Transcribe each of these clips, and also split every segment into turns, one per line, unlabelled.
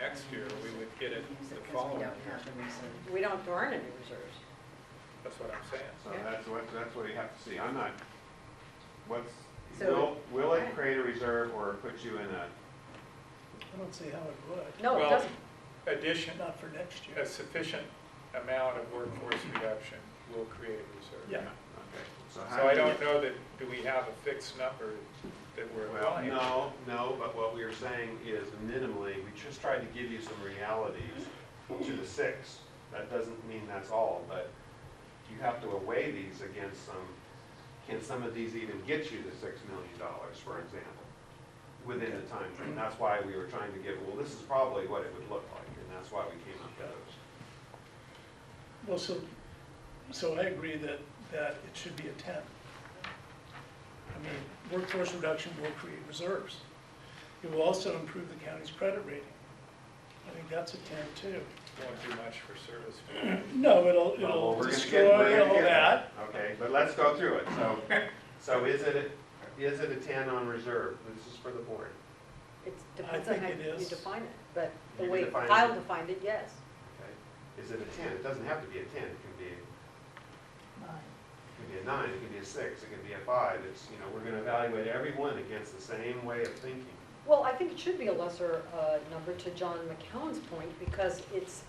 next year, we would get it the
Because we
following
don't
year.
have the reserve.
We don't, there aren't any reserves.
That's what I'm saying.
So that's what, that's what you have to see. I'm not, what's, will,
So-
will it create a reserve or put you in a,
I don't see how it would,
No, it
Well,
doesn't.
Addition,
not for next
a
year.
sufficient amount of workforce reduction will create a reserve.
Yeah.
okay. how
So I
do you-
don't know that, do we have a fixed number that we're
Well,
applying?
no, no, but what we are saying is minimally, we just tried to give you some realities to the six. That doesn't mean that's all, but you have to weigh these against some, can some of these even get you to six million dollars, for example, within the time frame? That's why we were trying to give, well, this is probably what it would look like, and that's why we came up with those.
Well, so, so I agree that, that it should be a ten. I mean, workforce reduction will create reserves. It will also improve the county's credit rating. I think that's a ten too.
Won't do much for service. value.
No, it'll,
Well,
it'll
we're gonna get- we're
destroy
gonna
all
get
that.
Okay, but let's go through it. So, so is it, a- is it a ten on reserve? This is for the board.
It
I
depends on
think
how
it
you
is.
define it, but the
You
way
define it.
Kyle defined it, yes.
Okay, Is it a ten? It doesn't have to be a ten, it can be, it can be a nine, it can be a six, it can be a five, it's, you know, we're gonna evaluate everyone against the same way of thinking.
Well, I think it should be a lesser uh, number to John McCown's point, because it's,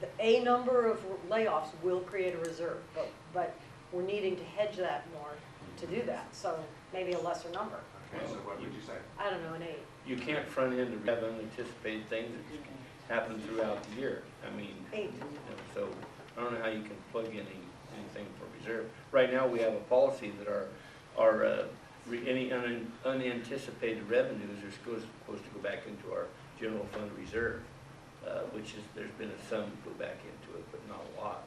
the- a number of layoffs will create a reserve, but, but we're needing to hedge that more to do that, so maybe a lesser number.
Okay, so what would you say?
I don't know, an eight.
You can't front end the rev unanticipated things that happen throughout the year. I mean,
Eight.
you know, so I don't know how you can plug in any- anything for reserve. Right now, we have a policy that our, our, uh, re- any un- unanticipated revenues are supposed, supposed to go back into our general fund reserve, uh, which is, there's been a sum go back into it, but not a lot.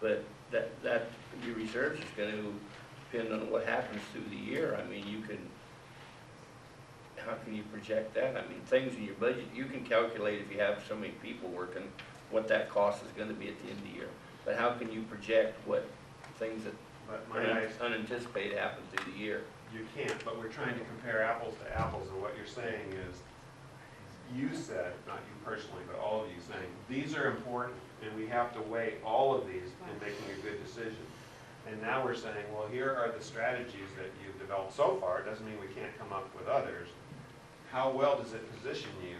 But that, that, your reserves is gonna depend on what happens through the year. I mean, you can, how can you project that? I mean, things in your budget, you can calculate if you have so many people working, what that cost is gonna be at the end of the year. But how can you project what things that
But
are
my eyes,
unanticipated happen through the year?
you can't, but we're trying to compare apples to apples, and what you're saying is, you said, not you personally, but all of you saying, these are important, and we have to weigh all of these in making a good decision. And now we're saying, well, here are the strategies that you've developed so far, it doesn't mean we can't come up with others. How well does it position you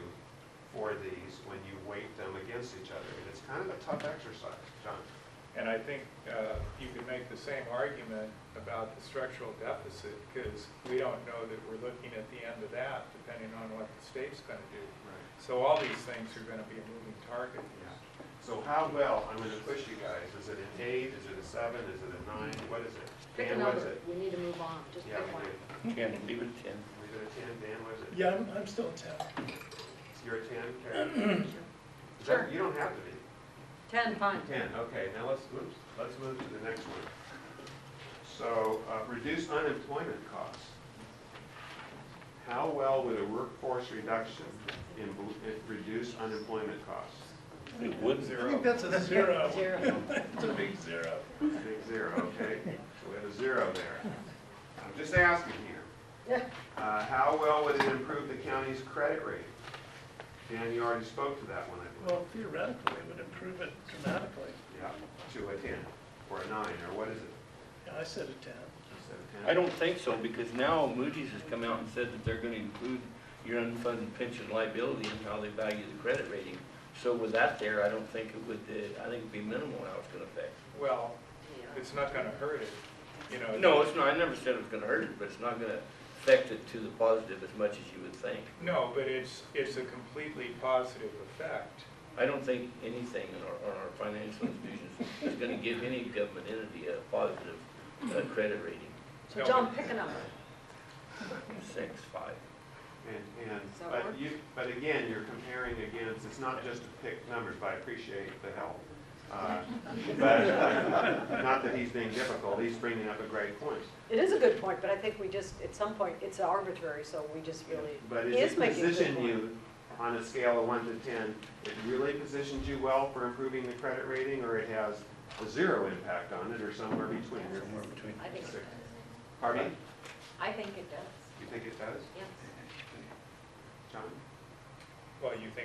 for these when you weight them against each other? And it's kind of a tough exercise, John.
And I think uh, you could make the same argument about the structural deficit, because we don't know that we're looking at the end of that, depending on what the state's going to do.
Right.
So all these things are going to be a moving target.
So how well, I'm gonna push you guys, is it an eight, is it a seven, is it a nine, what is it?
Pick a
Dan, what is
number,
it?
we need to move on, just
Yeah,
pick
we
one.
did,
Ten, leave it at ten.
we did a ten, Dan, what is it?
Yeah, I'm, I'm still ten.
You're a ten, Karen? Is that-
Sure.
You don't have to be.
Ten, fine.
Ten, okay, now let's, oops, let's move to the next one. So, uh, reduce unemployment costs. How well would a workforce reduction in, in- reduce unemployment costs?
It would.
I think that's a zero.
Zero.
It's a big zero.
Big zero, okay, so we have a zero there. I'm just asking here. Uh, how well would it improve the county's credit rating? Dan, you already spoke to that one, I believe.
Well, theoretically, it would improve it dramatically.
Yeah, to a ten, or a nine, or what is it?
Yeah, I said a ten.
Instead of 10?
I don't think so, because now Moody's has come out and said that they're gonna include your unfunded pension liability and how they value the credit rating. So with that there, I don't think it would, uh, I think it'd be minimal how it's gonna affect.
Well, it's not going to hurt it, you know.
No, it's not, I never said it was gonna hurt it, but it's not gonna affect it to the positive as much as you would think.
No, but it's, it's a completely positive effect.
I don't think anything in our, on our financial institutions is gonna give any government entity a positive uh, credit rating.
So John, pick a number.
Six, five.
And, and,
Does that work?
but you, but again, you're comparing against, it's not just to pick numbers, but I appreciate the help. Uh, But, not that he's being difficult, he's bringing up a great point.
It is a good point, but I think we just, at some point, it's arbitrary, so we just really,
But
he is
is it
making a good
position
point.
you on a scale of one to ten, it really positions you well for improving the credit rating, or it has a zero impact on it, or somewhere between?
Somewhere between.
I think, it does.
Pardon? me?
I think it does,
You think it does,
yes.
John?
Well, you think